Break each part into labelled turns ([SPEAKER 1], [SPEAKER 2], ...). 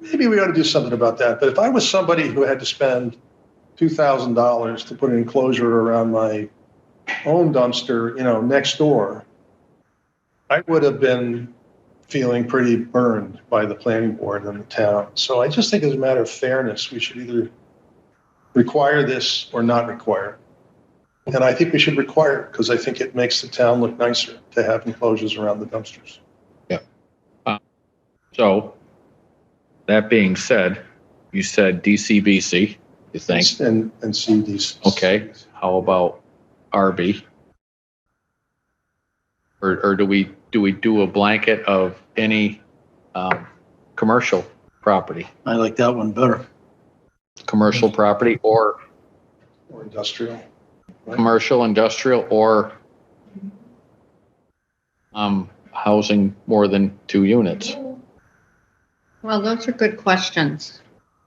[SPEAKER 1] maybe we ought to do something about that. But if I was somebody who had to spend two thousand dollars to put an enclosure around my own dumpster, you know, next door, I would have been feeling pretty burned by the planning board and the town. So I just think as a matter of fairness, we should either require this or not require it. And I think we should require it because I think it makes the town look nicer to have enclosures around the dumpsters.
[SPEAKER 2] So, that being said, you said DCBC, you think.
[SPEAKER 1] And, and see these.
[SPEAKER 2] Okay. How about RB? Or, or do we, do we do a blanket of any, um, commercial property?
[SPEAKER 3] I like that one better.
[SPEAKER 2] Commercial
[SPEAKER 4] Mm-hmm.
[SPEAKER 2] property or
[SPEAKER 1] Or industrial.
[SPEAKER 2] commercial, industrial, or um, housing more than two units,
[SPEAKER 4] Well, those are good questions.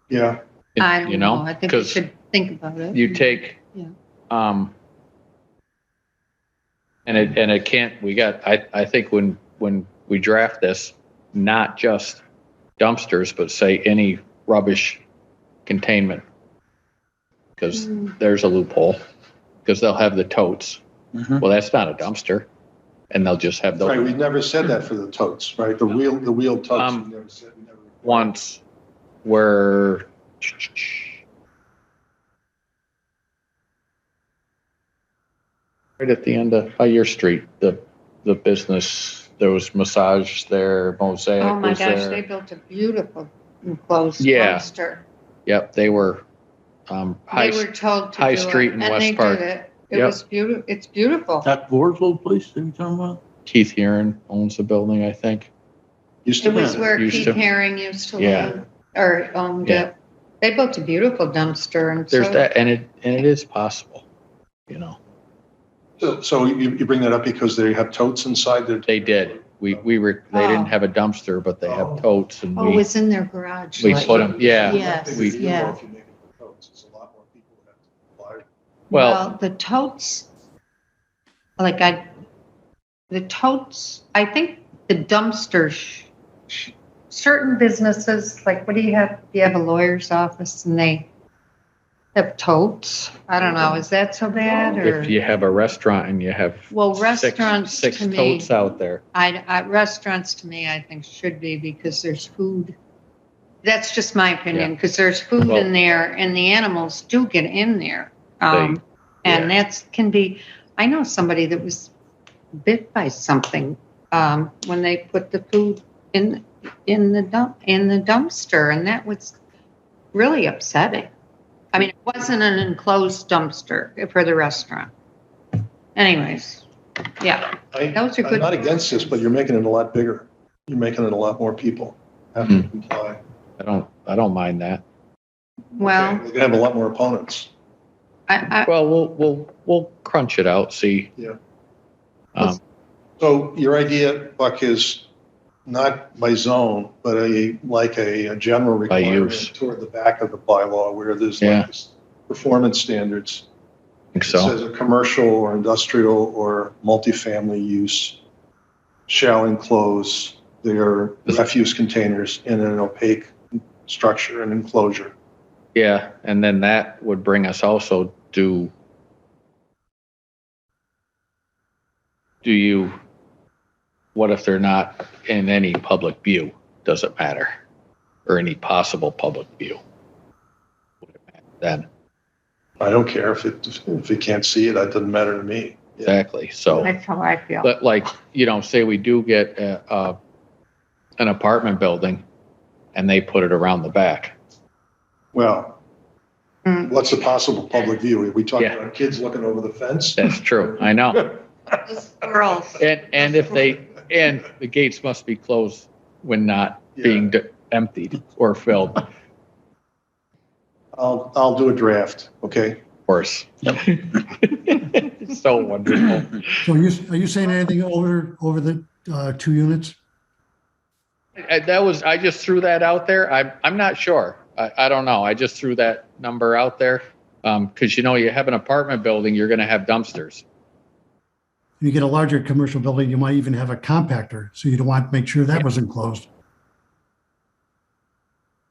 [SPEAKER 1] Yeah.
[SPEAKER 4] I don't
[SPEAKER 2] you know?
[SPEAKER 4] know. I think we
[SPEAKER 2] 'Cause-
[SPEAKER 4] should think about it.
[SPEAKER 2] you take.
[SPEAKER 4] Yeah.
[SPEAKER 2] Um. And it, and it can't, we got, I, I think when, when we draft this, not just dumpsters, but say any rubbish containment. Cause
[SPEAKER 4] Mm,
[SPEAKER 2] there's a loophole, cause they'll have the totes.
[SPEAKER 3] Mhm.
[SPEAKER 2] Well, that's not a dumpster. And they'll just have
[SPEAKER 1] Right, we
[SPEAKER 2] those
[SPEAKER 1] never said that for the totes, right? The wheel, the wheel totes. we
[SPEAKER 2] Um,
[SPEAKER 1] never said- we never-
[SPEAKER 2] once where right at the end of, by your street, the, the business, there was massage there, mosaic
[SPEAKER 4] Oh my
[SPEAKER 2] was
[SPEAKER 4] gosh, they
[SPEAKER 2] there.
[SPEAKER 4] built a beautiful enclosed
[SPEAKER 2] Yeah.
[SPEAKER 4] dumpster.
[SPEAKER 2] Yep, they were, um,
[SPEAKER 4] They
[SPEAKER 2] high,
[SPEAKER 4] were told to
[SPEAKER 2] High
[SPEAKER 4] do it,
[SPEAKER 2] Street in
[SPEAKER 4] and
[SPEAKER 2] West
[SPEAKER 4] they did
[SPEAKER 2] Park.
[SPEAKER 4] It It
[SPEAKER 2] Yep.
[SPEAKER 4] was beautiful. It's beautiful.
[SPEAKER 3] That Borslow place that you're talking about?
[SPEAKER 2] Keith Heron owns the building, I think.
[SPEAKER 1] Used to
[SPEAKER 4] It was
[SPEAKER 1] be.
[SPEAKER 4] where
[SPEAKER 2] Used
[SPEAKER 4] Pete
[SPEAKER 2] to-
[SPEAKER 4] Herring used to
[SPEAKER 2] Yeah.
[SPEAKER 4] live or owned
[SPEAKER 2] Yeah.
[SPEAKER 4] it. They built a beautiful dumpster and
[SPEAKER 2] There's
[SPEAKER 4] so
[SPEAKER 2] that, and it, and it is possible, you know,
[SPEAKER 1] So, so you, you bring that up because they have totes inside their.
[SPEAKER 2] they did. We, we were, they
[SPEAKER 4] Oh.
[SPEAKER 2] didn't have a dumpster, but they have totes and
[SPEAKER 4] oh, it
[SPEAKER 2] we,
[SPEAKER 4] was in their garage.
[SPEAKER 2] we
[SPEAKER 4] like-
[SPEAKER 2] put them, yeah.
[SPEAKER 4] Yes,
[SPEAKER 1] If you do
[SPEAKER 4] yeah.
[SPEAKER 1] more, if you make it totes, it's a lot more people that have to
[SPEAKER 2] Well-
[SPEAKER 4] the totes, like I, the totes, I think the dumpsters, sh- sh- certain businesses, like what do you have? You have a lawyer's office and they have totes. I don't know. Is that so bad or?
[SPEAKER 2] If you have a restaurant and you have.
[SPEAKER 4] Well,
[SPEAKER 2] six-
[SPEAKER 4] restaurants
[SPEAKER 2] Six
[SPEAKER 4] to me,
[SPEAKER 2] totes out there.
[SPEAKER 4] I, I, restaurants to me, I think should be because there's food. That's just my opinion, because there's food
[SPEAKER 2] Well-
[SPEAKER 4] in there and the animals do get in there. Um, and that's, can be, I know somebody that was bit by something, um, when they put the food in, in the dump, in the dumpster and that was really upsetting. I mean, it wasn't an enclosed dumpster for the restaurant. Anyways, yeah,
[SPEAKER 1] put- I-
[SPEAKER 4] those are good.
[SPEAKER 1] I'm not against this, but you're making it a lot bigger. You're making it a lot more people have
[SPEAKER 2] Hmm.
[SPEAKER 1] to comply.
[SPEAKER 2] I don't, I don't mind that.
[SPEAKER 4] Well,
[SPEAKER 1] They're gonna have a lot more opponents.
[SPEAKER 4] I, I,
[SPEAKER 2] Well, we'll, we'll, we'll crunch it out, see.
[SPEAKER 1] Yeah.
[SPEAKER 2] Um,
[SPEAKER 1] So your idea, Buck, is not by zone, but a, like a, a general
[SPEAKER 2] By
[SPEAKER 1] requirement
[SPEAKER 2] use.
[SPEAKER 1] toward the back of the bylaw where there's
[SPEAKER 2] Yeah.
[SPEAKER 1] like this performance standards.
[SPEAKER 2] I think
[SPEAKER 1] It
[SPEAKER 2] so.
[SPEAKER 1] says a commercial or industrial or multifamily use shall enclose their refuse containers in an opaque structure and enclosure.
[SPEAKER 2] Yeah, and then that would bring us also to. Do you, what if they're not in any public view? Does it matter? Or any possible public view? Would it matter Then,
[SPEAKER 1] I don't care if it, if you can't see it, that doesn't matter to me. Yeah.
[SPEAKER 2] exactly, so.
[SPEAKER 4] that's how I feel.
[SPEAKER 2] But like, you know, say we do get a, a, an apartment building and they put it around the back.
[SPEAKER 1] Well,
[SPEAKER 4] Mm.
[SPEAKER 1] what's the possible public view? We talked
[SPEAKER 2] Yeah.
[SPEAKER 1] about kids looking over the fence.
[SPEAKER 2] That's true. I know.
[SPEAKER 4] Those Girls,
[SPEAKER 2] And, and if they, and the gates must be closed when not being de- emptied or filled, of
[SPEAKER 1] I'll, I'll do a draft, okay?
[SPEAKER 2] course. So wonderful.
[SPEAKER 5] So are you, are you saying anything over, over the uh, two units?
[SPEAKER 2] I- That was, I just threw that out there. I'm, I'm not sure. I, I don't know. I just threw that number out there. Um, cause you know, you have an apartment building, you're gonna have dumpsters.
[SPEAKER 5] You get a larger commercial building, you might even have a compactor, so you'd want to make sure that was enclosed.